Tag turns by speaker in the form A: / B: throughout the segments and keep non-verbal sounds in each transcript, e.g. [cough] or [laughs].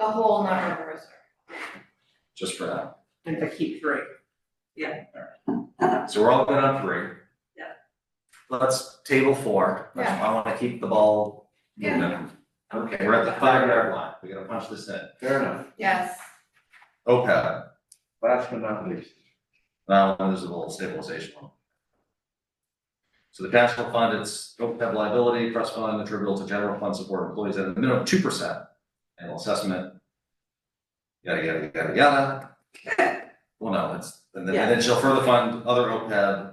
A: a whole number of roaster.
B: just for now.
C: and to keep three.
B: So we're all good on three.
C: Yeah.
B: Let's table four, That's- I wanna keep the ball moving. Okay, we're at the five yard line, we gotta punch this in.
D: Fair enough.
A: Yes,
B: OPEB,
D: Last but not least,
B: now there's a little stabilization one. So the cash flow fund, it's OPEB liability, trust fund attributable to general fund support employees at a minimum of two percent annual assessment. Yada, yada, yada, yada. Well, no, it's, and then, and then she'll further fund other OPEB.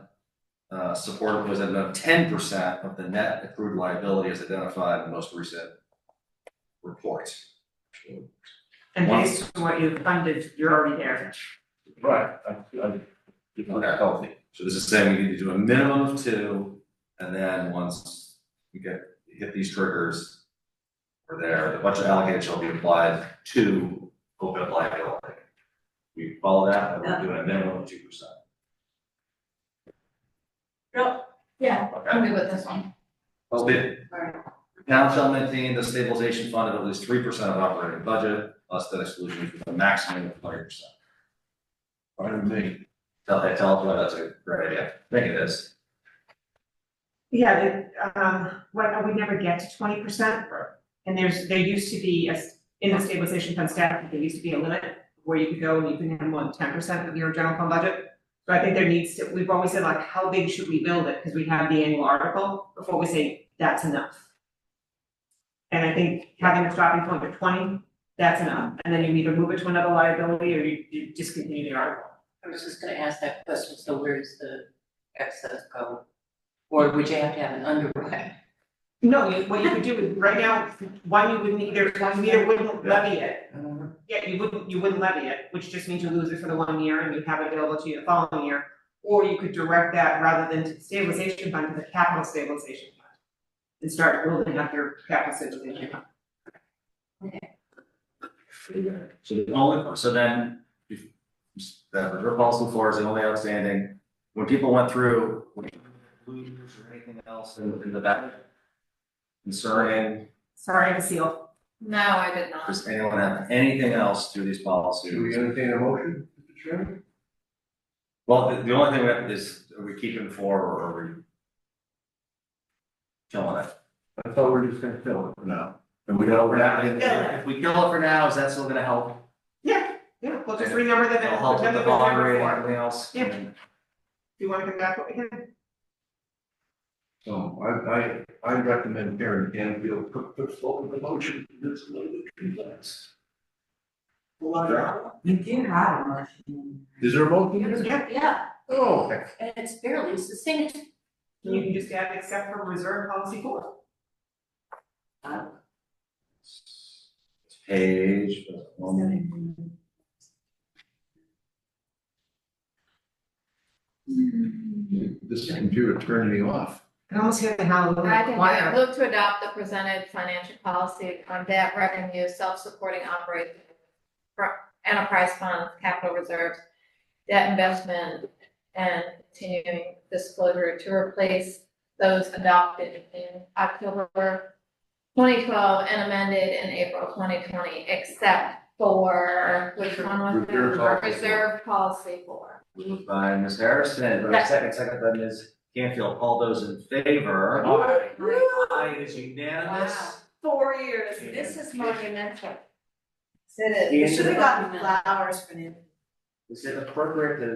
B: Uh, support employees at a minimum of ten percent of the net accrued liability as identified in the most recent report.
C: And
B: Once-
C: based on what you funded, you're already there.
D: right, I, I, you know, that's healthy.
B: So this is saying we need to do a minimum of two, and then once we get, hit these triggers. We're there, the budget allocated shall be applied to open liability. We follow that, and we're doing a minimum of two percent.
A: yeah, I'm
B: Okay.
A: good with this one.
B: So the
A: Alright.
B: town shall maintain the stabilization fund of at least three percent of operating budget, less than exclusion with a maximum of thirty percent.
D: Pardon me.
B: Tell, tell us why that's a great idea, I think it is.
C: Yeah, the, um, what, we never get to twenty percent. And there's, there used to be, a s- in the stabilization fund staff, there used to be a limit where you could go and you can have more than ten percent of your general fund budget. So I think there needs to, we've always said like, how big should we build it? Because we have the annual article before we say, that's enough. And I think having a stopping point of twenty, that's enough. And then you either move it to another liability or you, you discontinue the article.
E: I was just gonna ask that question, so where does the excess go? Or would you have to have an underwrite?
C: No, you, what you could do is, right now, one, you wouldn't either, one, you either wouldn't levy it,
E: Mm-hmm.
C: yeah, you wouldn't, you wouldn't levy it, which just means you lose it for the one year and you have it available to you the following year. Or you could direct that rather than to the stabilization fund, to the capital stabilization fund. And start building up your capital stabilization fund.
B: So the only, so then, if, that reserve policy floor is the only outstanding, when people went through, were there inclusions or anything else in, in the back? Concerning,
C: Sorry, I have a seal.
A: No, I did not.
B: does anyone have anything else through these
D: Do we
B: policies?
D: entertain a motion, Mr. Chairman?
B: Well, the, the only thing we have is, are we keeping four or are we? Killing it?
D: I thought we were just gonna fill it for now. And we got over that.
C: Yeah.
B: If we kill it for now, is that still gonna help?
C: Yeah, yeah, well, just renumber that,
B: It'll help with
C: remember
B: the
C: the
B: bond
C: number
B: rate and
C: four.
B: everything else?
C: Yeah. Do you wanna come back, what we had?
D: So I, I, I recommend Karen Canfield put, put forward the motion that's a little bit complex.
E: You do have a motion.
D: Is there a motion?
C: Yeah,
E: Yeah,
D: Oh,
E: and it's fairly succinct.
C: you can just add except for reserve policy four.
B: Page, uh, one.
D: this computer turned me off.
C: I can almost hear the hallelujah.
A: I can do
C: choir.
A: it. Move to adopt the presented financial policy on debt revenue, self-supporting operating fr- enterprise funds, capital reserves, debt investment, and continuing disclosure to replace those adopted in October twenty twelve and amended in April twenty twenty, except for, which one was it?
D: Reserve policy.
A: Reserve policy for.
B: Moved by Ms. Harrison, but second, second by Ms. Canfield, all those in favor? Aye, it is unanimous.
E: Four years,
B: This
E: is monumental.
A: It
B: You should've
E: gotten
A: flowers for him.
B: Is it appropriate to?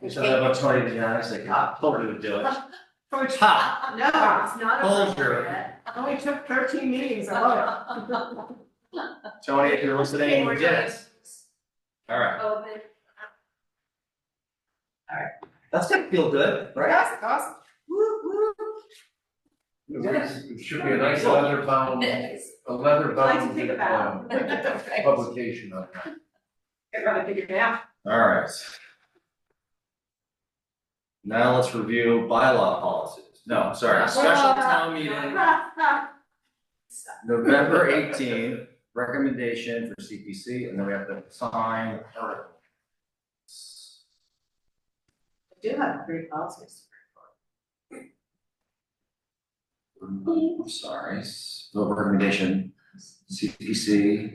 B: We should have a twenty to nine, it's like, ah, totally would do it. Ha,
C: No, it's
E: not
B: Hold your- appropriate.
C: only took thirteen meetings, I love
B: [laughs] Tony, if you're listening, we did it. All right, that's gonna feel good,
C: it.
B: right?
C: That's awesome.
D: It should be a nice leather bound, a leather bound.
E: Nice to think
C: [laughs]
E: about.
D: um, Publication on that.
C: I'd rather figure it out.
B: All right. Now let's review bylaw policies. No, sorry, special town meeting. November eighteenth, recommendation for CPC, and then we have to sign the article.
E: Do have three policies.
B: I'm sorry, vote recommendation, CPC,